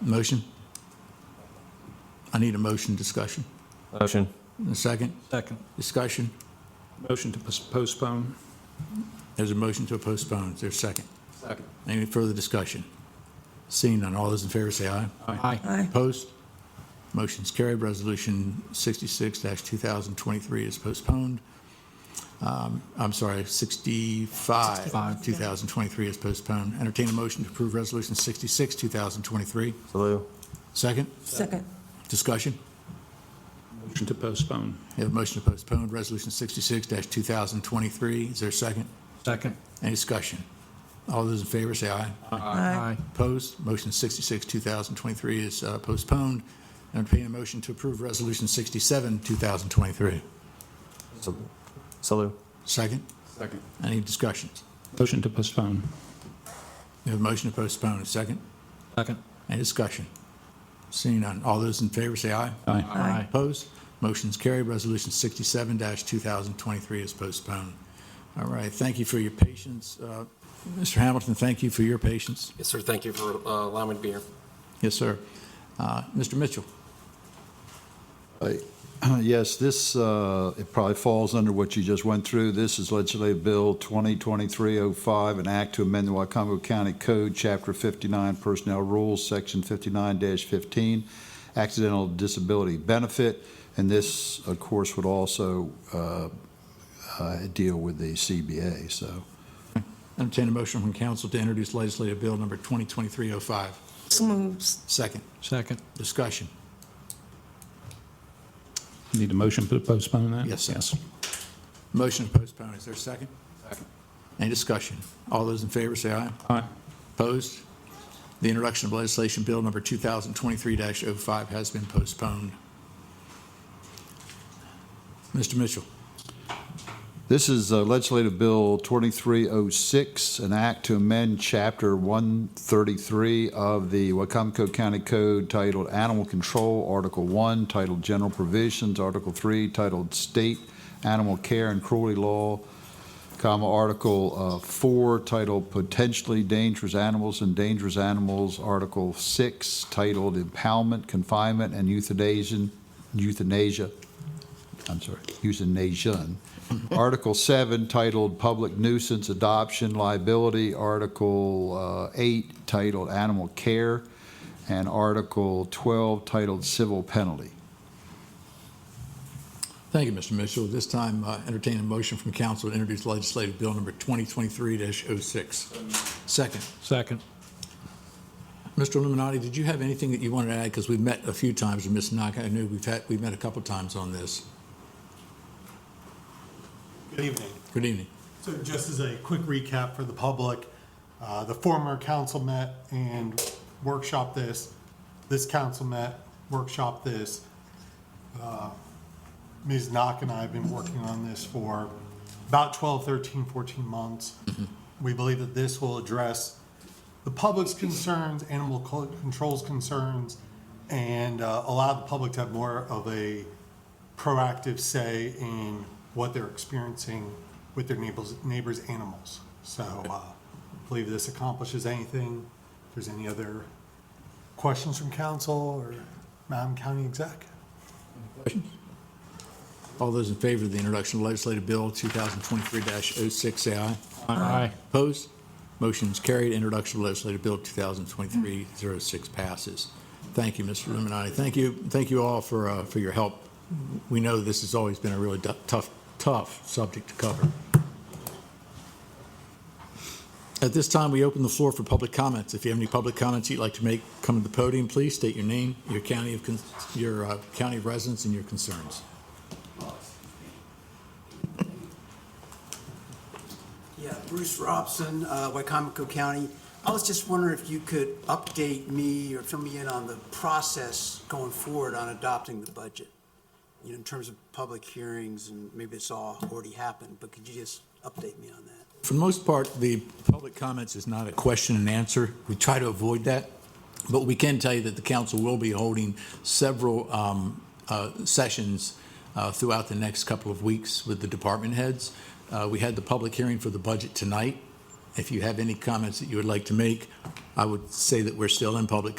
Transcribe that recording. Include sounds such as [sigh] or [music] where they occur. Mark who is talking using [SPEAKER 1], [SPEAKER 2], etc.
[SPEAKER 1] Motion? I need a motion discussion.
[SPEAKER 2] Motion.
[SPEAKER 1] And A second?
[SPEAKER 3] Second.
[SPEAKER 1] Discussion?
[SPEAKER 3] Motion to pos- postpone.
[SPEAKER 1] There's a motion to postpone. Is there a second?
[SPEAKER 3] Second.
[SPEAKER 1] Any further discussion? Seeing none, all those in favor say aye.
[SPEAKER 3] Aye.
[SPEAKER 1] Opposed? Motion's carried. Resolution 66-2023 is postponed. Um, I'm sorry, 65,
[SPEAKER 3] 65.
[SPEAKER 1] 2023 is postponed. Entertain a motion to approve Resolution 66, 2023.
[SPEAKER 2] Salou.
[SPEAKER 1] Second?
[SPEAKER 4] Second.
[SPEAKER 1] Discussion?
[SPEAKER 3] Motion to postpone.
[SPEAKER 1] We have a motion to postpone Resolution 66-2023. Is there a second?
[SPEAKER 3] Second.
[SPEAKER 1] Any discussion? All those in favor say aye.
[SPEAKER 3] Aye.
[SPEAKER 1] Opposed? Motion 66, 2023 is uh, postponed. Entertain a motion to approve Resolution 67, 2023.
[SPEAKER 2] Salou.
[SPEAKER 1] Second?
[SPEAKER 3] Second.
[SPEAKER 1] Any discussions?
[SPEAKER 3] Motion to postpone.
[SPEAKER 1] We have a motion to postpone. A second?
[SPEAKER 3] Second.
[SPEAKER 1] Any discussion? Seeing none. All those in favor say aye.
[SPEAKER 3] Aye.
[SPEAKER 4] Aye.
[SPEAKER 1] Opposed? Motion's carried. Resolution 67-2023 is postponed. All right, thank you for your patience. Uh, Mr. Hamilton, thank you for your patience.
[SPEAKER 5] Yes, sir. Thank you for uh, allowing me to be here.
[SPEAKER 1] Yes, sir. Uh, Mr. Mitchell?
[SPEAKER 6] [clears throat] Yes, this, uh, it probably falls under what you just went through. This is Legislative Bill 2023-05, an act to amend the Wycomico County Code, Chapter 59 Personnel Rules, Section 59-15, Accidental Disability Benefit. And this, of course, would also uh, uh, deal with the CBA, so.
[SPEAKER 1] Entertain a motion from council to introduce legislative bill number 2023-05.
[SPEAKER 4] So moves.
[SPEAKER 1] Second,
[SPEAKER 3] Second.
[SPEAKER 1] discussion.
[SPEAKER 3] Need a motion to postpone that?
[SPEAKER 1] Yes, sir.
[SPEAKER 3] Yes.
[SPEAKER 1] Motion to postpone, is there a second? Any discussion? All those in favor say aye.
[SPEAKER 3] Aye.
[SPEAKER 1] Opposed? The introduction of legislation bill number 2023-05 has been postponed. Mr. Mitchell,
[SPEAKER 6] This is uh, Legislative Bill 2306, an act to amend Chapter 133 of the Wacomico County Code titled Animal Control, Article 1, titled General Provisions, Article 3, titled State Animal Care and Cruelty Law, comma, Article uh, 4, titled Potentially Dangerous Animals and Dangerous Animals, Article 6, titled Impoundment, Confinement, and Euthanasia, Euthanasia, I'm sorry, Euthanasia, [laughs] Article 7 titled Public Nuisance Adoption Liability, Article uh, 8 titled Animal Care, and Article 12 titled Civil Penalty.
[SPEAKER 1] thank you, Mr. Mitchell. This time, uh, entertain a motion from council to introduce legislative bill number 2023-06. Second,
[SPEAKER 3] Second.
[SPEAKER 1] Mr. Illuminati, did you have anything that you wanted to add? Because we've met a few times with Ms. Knock. I knew we've had, we've met a couple times on this.
[SPEAKER 7] Good evening.
[SPEAKER 1] Good evening.
[SPEAKER 7] So just as a quick recap for the public, uh, the former council met and workshop this. This council met, workshop this. Uh, Ms. Knock and I have been working on this for about 12, 13, 14 months. We believe that this will address the public's concerns, animal co- control's concerns, and uh, allow the public to have more of a proactive say in what they're experiencing with their neighbors, neighbors' animals. So uh, I believe this accomplishes anything. If there's any other questions from council or Madam County Exec?
[SPEAKER 1] All those in favor of the introduction of legislative bill 2023-06, say aye.
[SPEAKER 3] Aye.
[SPEAKER 1] Opposed? Motion's carried. Introduction of legislative bill 2023-06 passes. Thank you, Mr. Illuminati. Thank you, thank you all for, uh, for your help. We know this has always been a really du- tough, tough subject to cover. At this time, we open the floor for public comments. If you have any public comments you'd like to make, come to the podium, please. State your name, your county of, con- your uh, county of residence, and your concerns.
[SPEAKER 8] Yeah, Bruce Robson, uh, Wycomico County. I was just wondering if you could update me or fill me in on the process going forward on adopting the budget, you know, in terms of public hearings, and maybe it's all already happened, but could you just update me on that?
[SPEAKER 1] For the most part, the public comments is not a question and answer. We try to avoid that. But we can tell you that the council will be holding several um, uh, sessions uh, throughout the next couple of weeks with the department heads. Uh, We had the public hearing for the budget tonight. If you have any comments that you would like to make, I would say that we're still in public